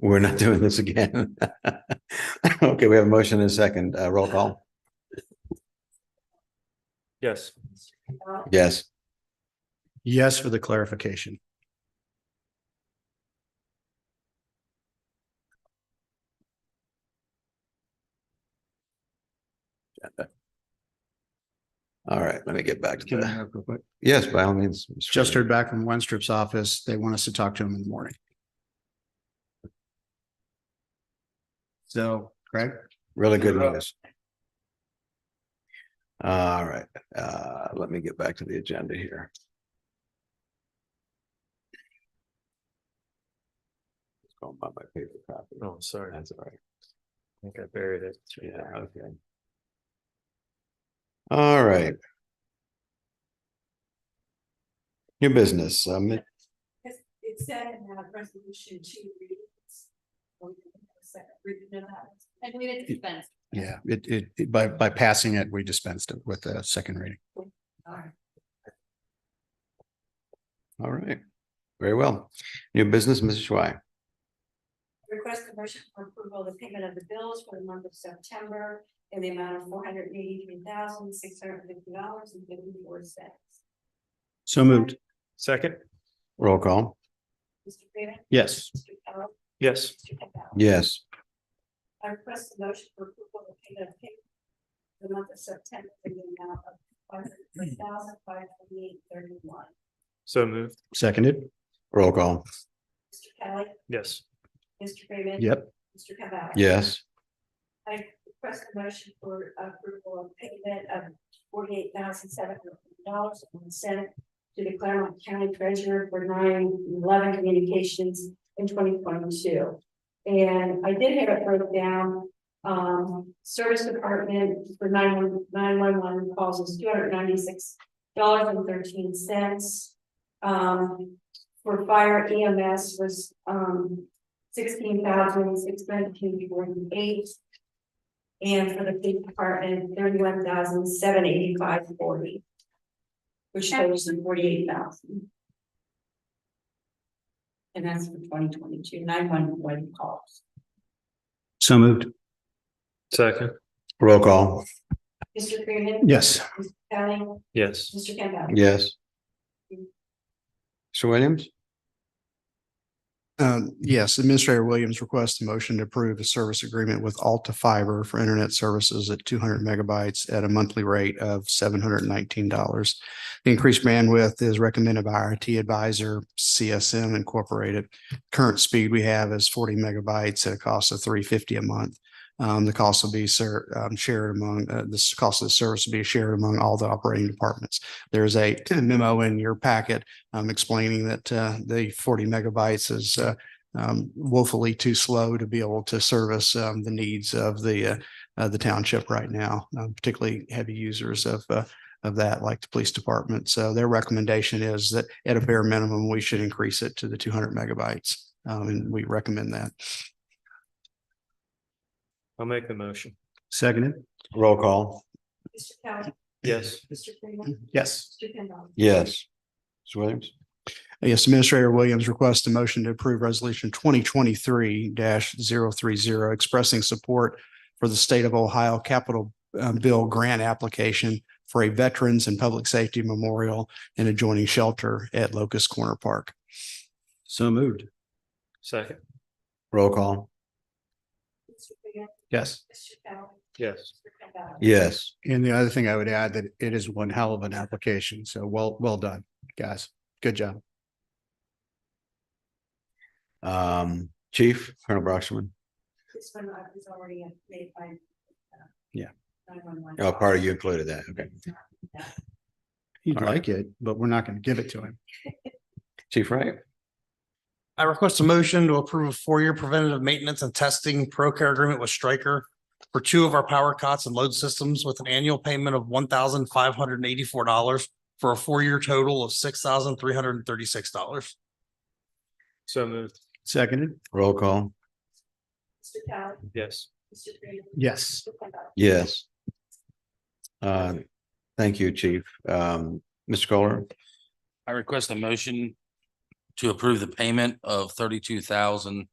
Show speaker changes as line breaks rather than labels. We're not doing this again. Okay, we have a motion and a second. Uh, roll call.
Yes.
Yes.
Yes, for the clarification.
All right, let me get back to
Can I
that.
interrupt real quick?
Yes, by all means. Mr.
Just
Fraser.
heard back from Wenstrup's office. They want us to talk to him in the morning. So, Greg?
Really good news. All right, uh, let me get back to the agenda here. It's Going by my paper copy.
Oh, sorry. I
That's all right.
think I buried it.
Yeah, okay. All right. New business, um,
It's- It said in that resolution two readings. Or you can have a second reading of that.
And we didn't dispense.
Yeah, it, it, it- by, by passing it, we dispensed it with the second reading.
All right.
all right, very well. New business, Mrs. Schwei.
Request a motion for approval of the payment of the bills for the month of September in the amount of four hundred and eighty-three thousand, six hundred and fifty dollars and fifty-four cents.
So moved.
Second?
Roll call.
Mr. Freeman.
Yes.
Mr. Carroll.
Yes.
Mr. Campbell.
Yes,
I request a motion for approval of the payment of payment for the month of September in the amount of one hundred and three thousand, five twenty-eight, thirty-one.
So moved.
Seconded.
roll call.
Mr. Kelly.
Yes.
Mr. Freeman.
Yep.
Mr. Campbell.
Yes,
I request a motion for approval of payment of forty-eight thousand seven hundred dollars on the Senate to the Claremont County Treasurer for nine eleven communications in twenty twenty-two. And I did have it broke down, um, service department for nine one, nine one one calls is two hundred ninety-six dollars and thirteen cents. Um, for fire EMS was, um, sixteen thousand six nineteen forty-eight. And for the police department, thirty-one thousand, seven eighty-five, forty. Which totals in forty-eight thousand. And that's for twenty twenty-two, nine one one calls.
So moved.
Second?
roll call.
Mr. Freeman.
Yes.
Mr. Kelly,
Yes.
Mr. Campbell.
Yes. Mr. Williams?
Um, yes, Administrator Williams requests a motion to approve a service agreement with Alta Fiber for internet services at two hundred megabytes at a monthly rate of seven hundred and nineteen dollars. The increased bandwidth is recommended by our IT advisor, CSM Incorporated. Current speed we have is forty megabytes at a cost of three fifty a month. Um, the cost will be ser- um, shared among, uh, this cost of the service will be shared among all the operating departments. There's a memo in your packet um, explaining that uh, the forty megabytes is uh, um, woefully too slow to be able to service um, the needs of the uh, uh, the township right now, um, particularly heavy users of uh, of that, like the police department. So their recommendation is that at a bare minimum, we should increase it to the two hundred megabytes, um, and we recommend that.
I'll make the motion.
Seconded.
Roll call.
Mr. Kelly,
Yes.
Mr. Freeman,
Yes.
Mr. Campbell.
Yes. Mr. Williams?
Yes, Administrator Williams requests a motion to approve Resolution twenty twenty-three 30 expressing support for the State of Ohio Capital uh, Bill Grant Application for a Veterans and Public Safety Memorial and adjoining shelter at Locust Corner Park. So moved.
Second?
Roll call.
Mr. Freeman,
Yes.
Mr. Kelly,
Yes.
Mr. Campbell.
Yes,
And the other thing I would add that it is one hell of an application. So well, well done, guys. Good job.
um, Chief Colonel Broxman,
This one I was already made by. uh,
Yeah.
911.
oh, part of you included that, okay.
He'd
All right.
like it, but we're not going to give it to him.
Chief Wright?
I request a motion to approve a four-year preventative maintenance and testing pro care agreement with Stryker for two of our power cots and load systems with an annual payment of one thousand five hundred and eighty-four dollars for a four-year total of six thousand three hundred and thirty-six dollars.
So moved.
Seconded.
Roll call.
Mr. Kelly,
Yes.
Mr. Freeman.
Yes.
Mr. Campbell.
Yes. Uh, thank you, Chief. Um, Mr. Kohler?
I request a motion to approve the payment of thirty-two thousand